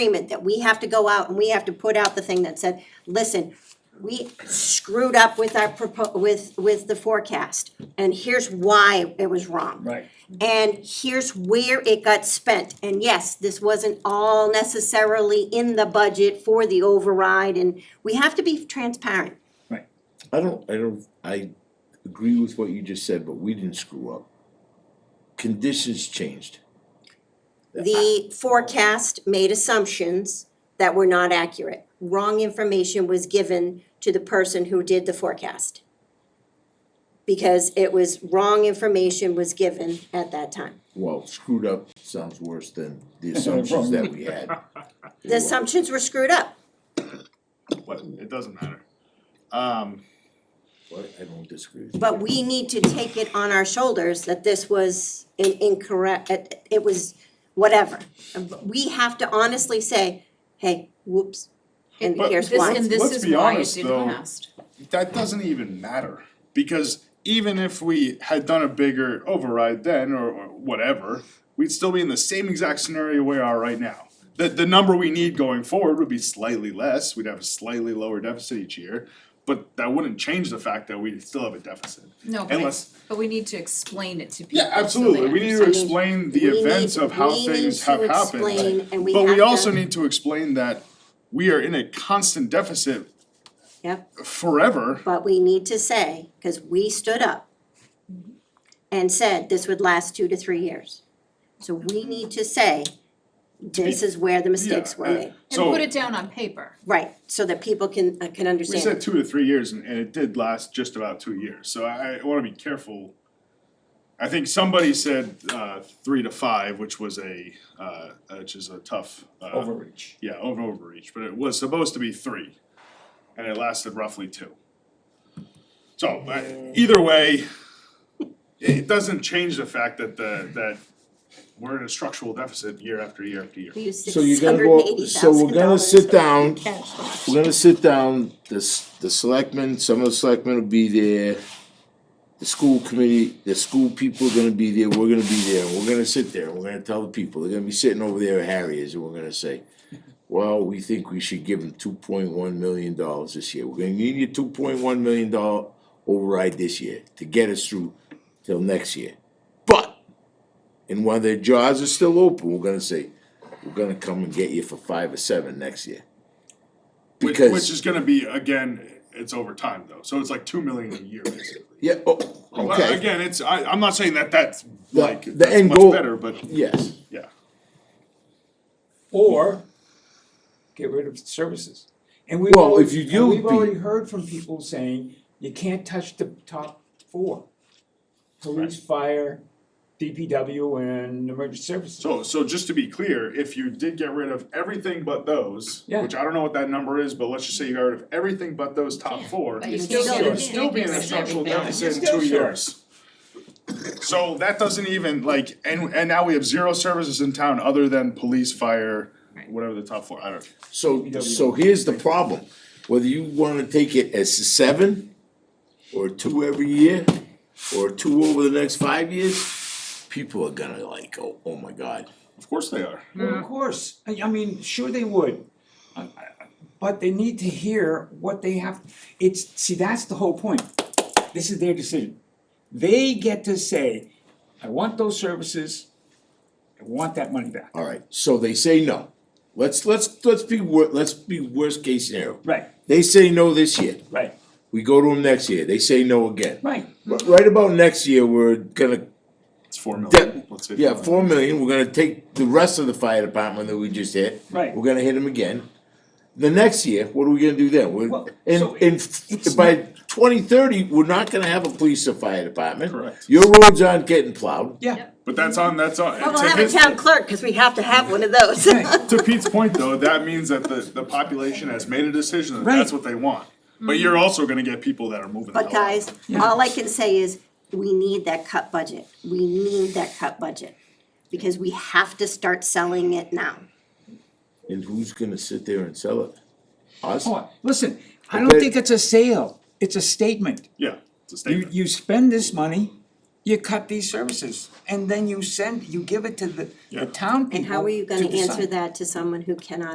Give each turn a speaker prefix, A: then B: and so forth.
A: agreement that we have to go out and we have to put out the thing that said, listen, we screwed up with our propo- with, with the forecast, and here's why it was wrong.
B: Right.
A: And here's where it got spent, and yes, this wasn't all necessarily in the budget for the override, and we have to be transparent.
C: I don't, I don't, I agree with what you just said, but we didn't screw up. Conditions changed.
A: The forecast made assumptions that were not accurate. Wrong information was given to the person who did the forecast. Because it was, wrong information was given at that time.
C: Well, screwed up sounds worse than the assumptions that we had.
A: The assumptions were screwed up.
D: What, it doesn't matter. Um,
C: Well, I don't disagree with you.
A: But we need to take it on our shoulders that this was an incorrect, it, it was whatever. We have to honestly say, hey, whoops, and
D: But
A: here's
E: This-
A: why.
E: And this
D: Let's
E: is
D: be
E: why it
D: honest,
E: didn't
D: though.
E: last.
D: that doesn't even matter, because even if we had done a bigger override then or or whatever, we'd still be in the same exact scenario we are right now. The the number we need going forward would be slightly less, we'd have a slightly lower deficit each year, but that wouldn't change the fact that we still have a deficit.
E: No, but,
D: Unless-
E: it's- but we need to explain it to people.
D: Yeah, absolutely, we need to explain the
A: We need-
D: events of how
A: we need
D: things
A: to
D: have happened.
A: explain and we
D: But
A: have
D: we
A: to-
D: also need to explain that we are in a constant deficit
A: Yep.
D: forever.
A: But we need to say, because we stood up and said this would last two to three years. So we need to say, this is where the mistakes were
D: Yeah,
A: made.
E: And
D: So,
E: put it down on paper.
A: Right, so that people can, uh, can
D: we said
A: understand.
D: two to three years and, and it did last just about two years, so I, I wanna be careful. I think somebody said, uh, three to five, which was a, uh, which is a tough, uh.
B: Overreach.
D: Yeah, over overreach, but it was supposed to be three, and it lasted roughly two. So, I- either way, it doesn't change the fact that the, that we're in a structural deficit year after year after year.
A: We used
C: So you're gonna go, so we're gonna
A: $680,000
C: sit down,
A: cash.
C: we're gonna sit down, the, s- the selectmen, some of the selectmen will be there. The school committee, the school people are gonna be there, we're gonna be there, and we're gonna sit there, and we're gonna tell the people, they're gonna be sitting over there at Harry's, and we're gonna say. Well, we think we should give them two point one million dollars this year, we're gonna need your two point one million dollar override this year to get us through till next year. But, and while their jaws are still open, we're gonna say, we're gonna come and get you for five or seven next year.
D: Which,
C: Because-
D: which is gonna be, again, it's over time though, so it's like two million a year basically.
C: Yeah, oh,
D: But
C: okay,
D: Again, it's, I, I'm not saying that that's
C: The-
D: like,
C: the
D: that's
C: end
D: much
C: goal-
D: better, but,
C: yes,
D: yeah,
B: Or get rid of services. And we've
C: Well, if
B: already,
C: you
B: and
C: do
B: we've
C: be-
B: already heard from people saying, you can't touch the top four. Police, fire, DPW and emergency services.
D: so, so just to be clear, if you did get rid of everything but those,
B: Yeah.
D: which I don't know what that number is, but let's just say you got rid of everything but those top four.
E: But you
A: still
E: still
D: you
A: Yeah.
D: would
E: get
D: still be in a structural deficit in
B: You're
D: two
B: still short.
D: years. So that doesn't even like, and and now we have zero services in town other than police, fire, whatever the top four, I don't.
C: so, so here's the problem, whether you wanna take it as seven, or two every year, or two over the next five years, people are gonna like, oh, oh my god.
D: Of course they are.
B: Well, of course, I, I mean, sure they would. I- I- But they need to hear what they have, it's, see, that's the whole point. This is their decision. They get to say, I want those services, I want that money back.
C: Alright, so they say no, let's, let's, let's be wor- let's be worst case scenario.
B: Right,
C: They say no this year,
B: right,
C: we go to them next year, they say no again.
B: right.
C: R- Right about next year, we're gonna
D: It's four million,
C: Dep-
D: let's say.
C: yeah, four million, we're gonna take the rest of the fire department that we just hit.
B: Right.
C: We're gonna hit them again. The next year, what are we gonna do then? We're,
B: Well,
C: and,
B: so
C: and
B: it's
C: f- by twenty thirty, we're not gonna have a police or fire department.
D: Correct.
C: Your roads aren't getting plowed.
B: Yeah,
D: But that's on, that's on.
A: Well,
D: to
A: we'll have a
D: his-
A: town clerk, because we have to have one of those.
D: To Pete's point though, that means that the the population has made a decision that that's
B: Right.
D: what they want. But you're also gonna get people that are moving the hell
A: Mm-hmm. But guys,
D: out.
A: all I can say is, we need that cut budget, we need that cut budget, because we have to start selling it now.
C: And who's gonna sit there and sell it? Us?
B: Oh, listen, I don't
C: Okay.
B: think it's a sale, it's a statement.
D: Yeah, it's a
B: You,
D: statement.
B: you spend this money, you cut these services, and then you send, you give it to the, the
D: Yeah.
B: town people
A: And how are you
B: to
A: gonna
B: decide.
A: answer that to someone who cannot